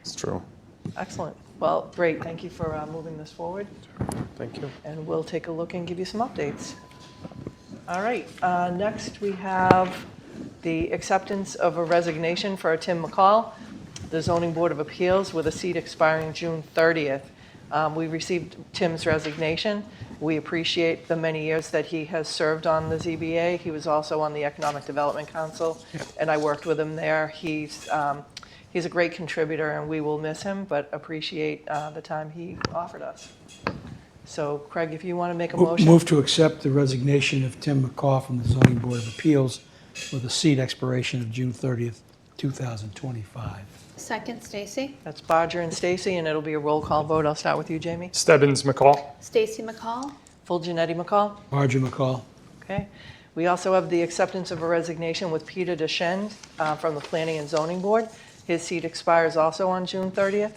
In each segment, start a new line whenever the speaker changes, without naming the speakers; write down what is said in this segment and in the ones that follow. It's true.
Excellent. Well, great. Thank you for uh, moving this forward,
Thank you.
and we'll take a look and give you some updates. All right. Uh, next, we have the acceptance of a resignation for Tim McCall, the Zoning Board of Appeals, with a seat expiring June 30th. Um, we received Tim's resignation. We appreciate the many years that he has served on the ZBA. He was also on the Economic Development Council, and I worked with him there. He's um, he's a great contributor, and we will miss him, but appreciate uh, the time he offered us. So, Craig, if you want to make a motion,
Move to accept the resignation of Tim McCaw from the Zoning Board of Appeals with a seat expiration of June 30th, 2025.
Second, Stacy.
that's Bodger and Stacy, and it'll be a roll call vote. I'll start with you, Jamie.
Stebbins McCall.
Stacy McCall.
Full Janetti McCall.
Marjorie McCall,
Okay. We also have the acceptance of a resignation with Peter Deschend uh, from the Planning and Zoning Board. His seat expires also on June 30th.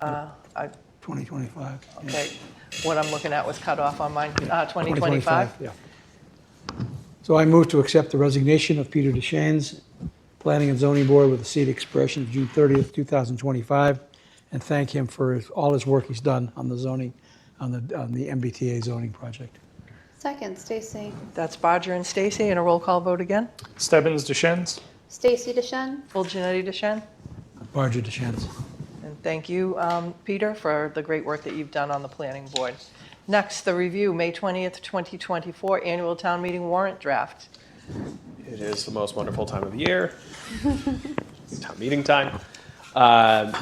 Uh, I-
2025. yeah.
Okay, what I'm looking at was cut off on mine, uh, 2025.
2025, yeah. So I move to accept the resignation of Peter Deschanes, Planning and Zoning Board with a seat expiration of June 30th, 2025, and thank him for his- all his work he's done on the zoning, on the, on the MBTA zoning project.
Second, Stacy.
That's Bodger and Stacy, and a roll call vote again.
Stebbins DeShens.
Stacy DeShen.
Full Janetti Deschend.
Marjorie Deschanes.
And thank you, um, Peter, for the great work that you've done on the planning board. Next, the review, May 20th, 2024 Annual Town Meeting Warrant Draft.
It is the most wonderful time of the year. Town meeting time. Um,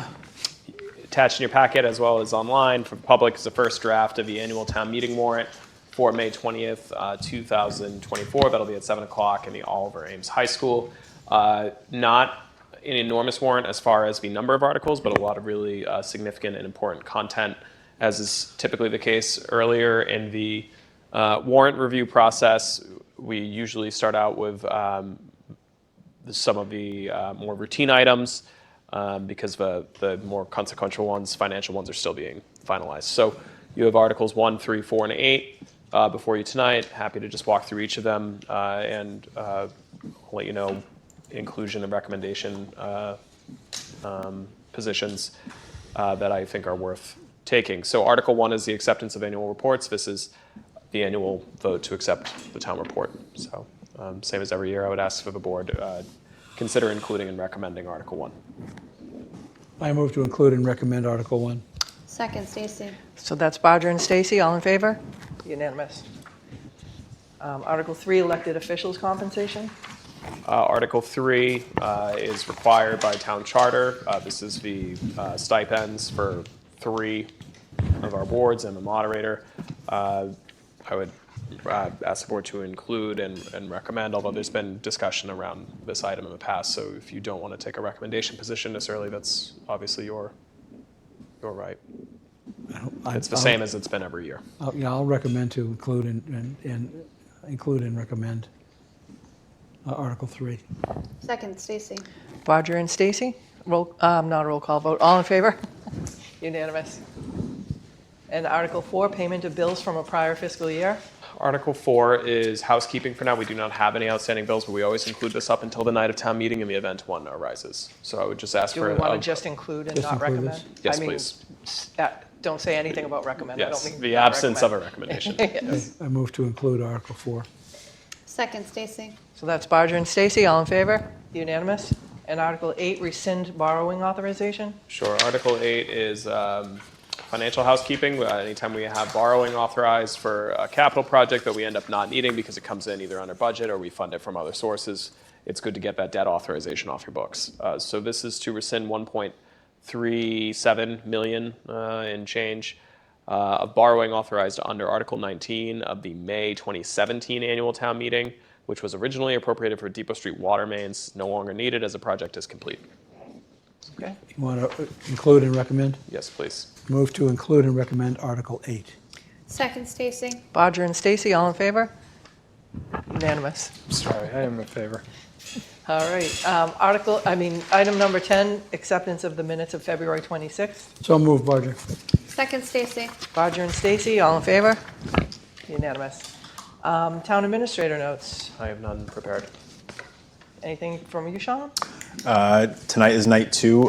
Attached in your packet as well as online for the public is the first draft of the annual town meeting warrant for May 20th, uh, 2024. That'll be at 7 o'clock in the Oliver Ames High School. Uh, Not an enormous warrant as far as the number of articles, but a lot of really uh, significant and important content, as is typically the case earlier in the uh, warrant review process. We usually start out with um, some of the uh, more routine items um, because the, the more consequential ones, financial ones, are still being finalized. So you have Articles 1, 3, 4, and 8 uh, before you tonight. Happy to just walk through each of them uh, and uh, let you know inclusion and recommendation uh, um, positions uh, that I think are worth taking. So Article 1 is the acceptance of annual reports. This is the annual vote to accept the town report. So um, same as every year, I would ask for the board, uh, consider including and recommending Article 1.
I move to include and recommend Article 1.
Second, Stacy.
So that's Bodger and Stacy, all in favor? Unanimous. Um, Article 3, Elected Officials Compensation.
Uh, Article 3 uh, is required by town charter. Uh, This is the uh, stipends for three of our boards and the moderator. Uh, I would uh, ask the board to include and and recommend, although there's been discussion around this item in the past, so if you don't want to take a recommendation position necessarily, that's obviously your, your right. It's the same as it's been every year.
I'll- Yeah, I'll recommend to include and, and- and, include and recommend uh, Article 3.
Second, Stacy.
Bodger and Stacy, roll, um, not a roll call vote, all in favor? Unanimous. And Article 4, Payment of Bills from a Prior Fiscal Year.
Article four is housekeeping for now. We do not have any outstanding bills, but we always include this up until the night of town meeting in the event one arises. So I would just ask
Do
for.
we want
a-
to just include and
Just
not
include
recommend?
this?
Yes,
I mean,
please.
s- uh, Don't say anything about recommend. I don't
Yes,
mean
the
not
absence of a
recommend.
recommendation.
Yes.
I move to include Article 4.
Second, Stacy.
So that's Bodger and Stacy, all in favor? Unanimous? And Article 8, rescind borrowing authorization?
Sure. Article eight is um, financial housekeeping. Uh, Anytime we have borrowing authorized for a capital project that we end up not needing because it comes in either under budget or we fund it from other sources, it's good to get that debt authorization off your books. Uh, So this is to rescind 1.37 million uh, in change uh, of borrowing authorized under Article 19 of the May 2017 annual town meeting, which was originally appropriated for Depot Street water mains, no longer needed as the project is complete.
Okay.
You want to include and recommend?
Yes, please.
Move to include and recommend Article 8.
Second, Stacy.
Bodger and Stacy, all in favor? Unanimous.
Sorry, I am in favor.
All right. um, Article, I mean, item number 10, acceptance of the minutes of February 26th.
So move, Barger.
Second, Stacy.
Bodger and Stacy, all in favor? Unanimous. Um, Town administrator notes.
I have none prepared.
Anything from you, Sean?
Uh, tonight is night two